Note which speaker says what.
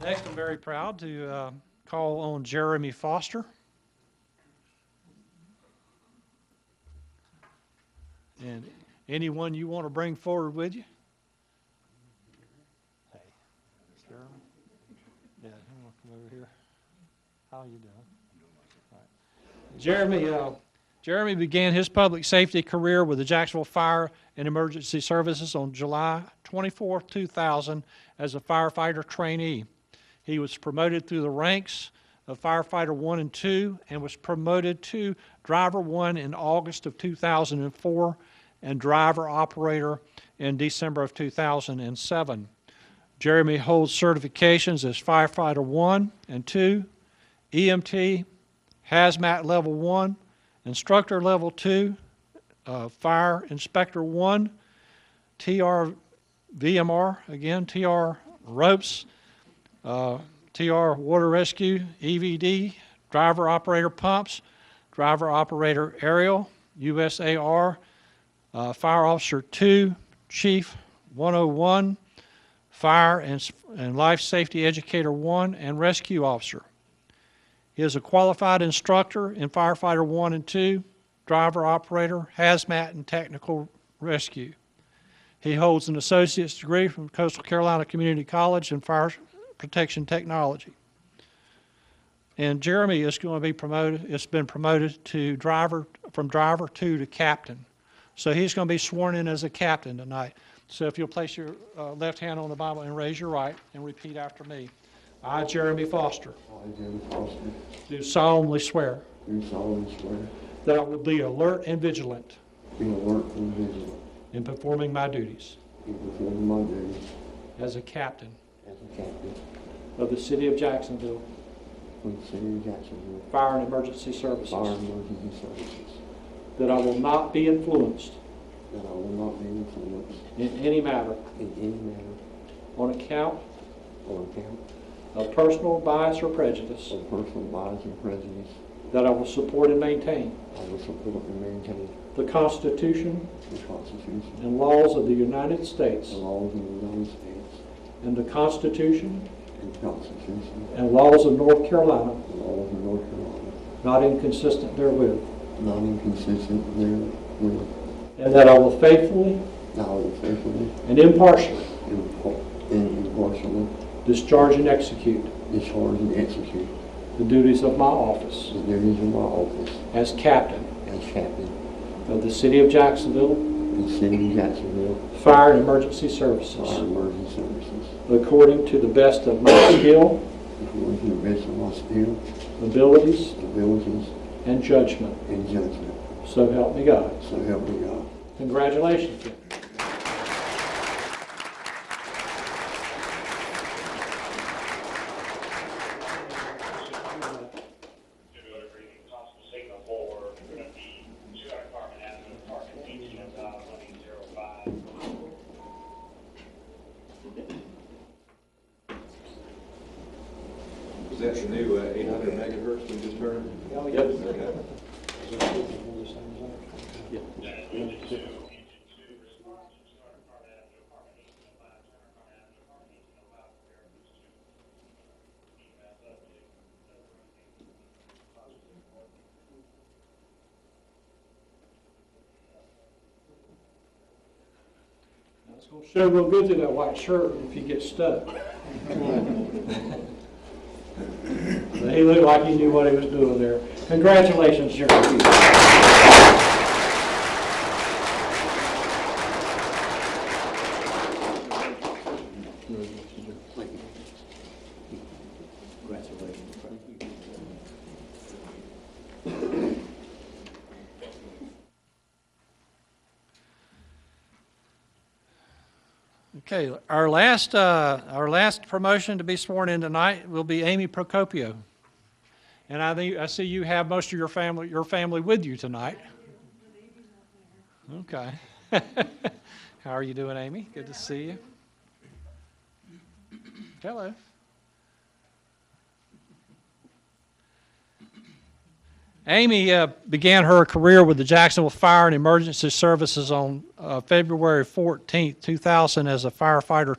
Speaker 1: Next, I'm very proud to uh, call on Jeremy Foster. And anyone you want to bring forward with you? Hey, Jeremy? Yeah, you want to come over here? How you doing? All right. Jeremy, uh, Jeremy began his public safety career with the Jacksonville Fire and Emergency Services on July 24, 2000, as a firefighter trainee. He was promoted through the ranks of firefighter 1 and 2 and was promoted to driver 1 in August of 2004 and driver operator in December of 2007. Jeremy holds certifications as firefighter 1 and 2, EMT, hazmat level 1, instructor level 2, uh, fire inspector 1, TR VMR, again, TR ropes, uh, TR Water Rescue, EVD, Driver Operator Pumps, Driver Operator Aerial, USAR, uh, Fire Officer 2, Chief 101, Fire and s- and Life Safety Educator 1, and Rescue Officer. He is a qualified instructor in firefighter 1 and 2, driver operator, hazmat, and technical rescue. He holds an associate's degree from Coastal Carolina Community College in fire protection technology. And Jeremy is going to be promoted, it's been promoted to driver, from driver two to captain. So he's going to be sworn in as a captain tonight. So if you'll place your uh, left hand on the Bible and raise your right and repeat after me. I, Jeremy Foster,
Speaker 2: I, Jim Foster,
Speaker 1: do solemnly swear
Speaker 2: do solemnly swear,
Speaker 1: that I will be alert and vigilant
Speaker 2: be alert and vigilant
Speaker 1: in performing my duties
Speaker 2: in performing my duties
Speaker 1: as a captain
Speaker 2: as a captain
Speaker 1: of the City of Jacksonville
Speaker 2: for the city of Jacksonville
Speaker 1: Fire and Emergency
Speaker 2: Fire
Speaker 1: Services,
Speaker 2: and Emergency Services,
Speaker 1: that I will not be influenced
Speaker 2: that I will not be influenced
Speaker 1: in any matter
Speaker 2: in any manner
Speaker 1: on account
Speaker 2: on account
Speaker 1: of personal bias or prejudice,
Speaker 2: of personal bias and prejudice.
Speaker 1: that I will support and maintain
Speaker 2: I will support and maintain
Speaker 1: the Constitution
Speaker 2: the Constitution
Speaker 1: and laws of the United States
Speaker 2: and laws of the United States
Speaker 1: and the Constitution
Speaker 2: and the Constitution
Speaker 1: and laws of North Carolina,
Speaker 2: and laws of North Carolina,
Speaker 1: not inconsistent therewith,
Speaker 2: not inconsistent therewith,
Speaker 1: and that I will faithfully
Speaker 2: that I will faithfully
Speaker 1: and impartially
Speaker 2: and impar- and impartially
Speaker 1: discharge and execute
Speaker 2: discharge and execute
Speaker 1: the duties of my office
Speaker 2: The duties of my office
Speaker 1: as captain
Speaker 2: as captain
Speaker 1: of the City of Jacksonville
Speaker 2: of the city of Jacksonville
Speaker 1: Fire and Emergency
Speaker 2: Fire
Speaker 1: Services,
Speaker 2: and Emergency Services,
Speaker 1: according to the best of my skill,
Speaker 2: according to the best of my skill,
Speaker 1: abilities,
Speaker 2: abilities,
Speaker 1: and judgment.
Speaker 2: and judgment.
Speaker 1: So help me God.
Speaker 2: So help me God.
Speaker 1: Congratulations. Jim.
Speaker 3: to go to reading possible signal four, we're gonna be two out of Carmen Avenue, apartment eighteen oh nine, one eight zero five.
Speaker 4: Is that the new uh, 800 megahertz we just heard? Okay.
Speaker 1: It's gonna Show real good through that white shirt if you get stuck. But He looked like he knew what he was doing there. Congratulations, Jeremy. Okay, our last, uh, our last promotion to be sworn in tonight will be Amy Procopio. And I think, I see you have most of your family, your family with you tonight. Okay. How are you doing, Amy? Good to see you. Hello. Amy uh, began her career with the Jacksonville Fire and Emergency Services on uh, February 14, 2000, as a firefighter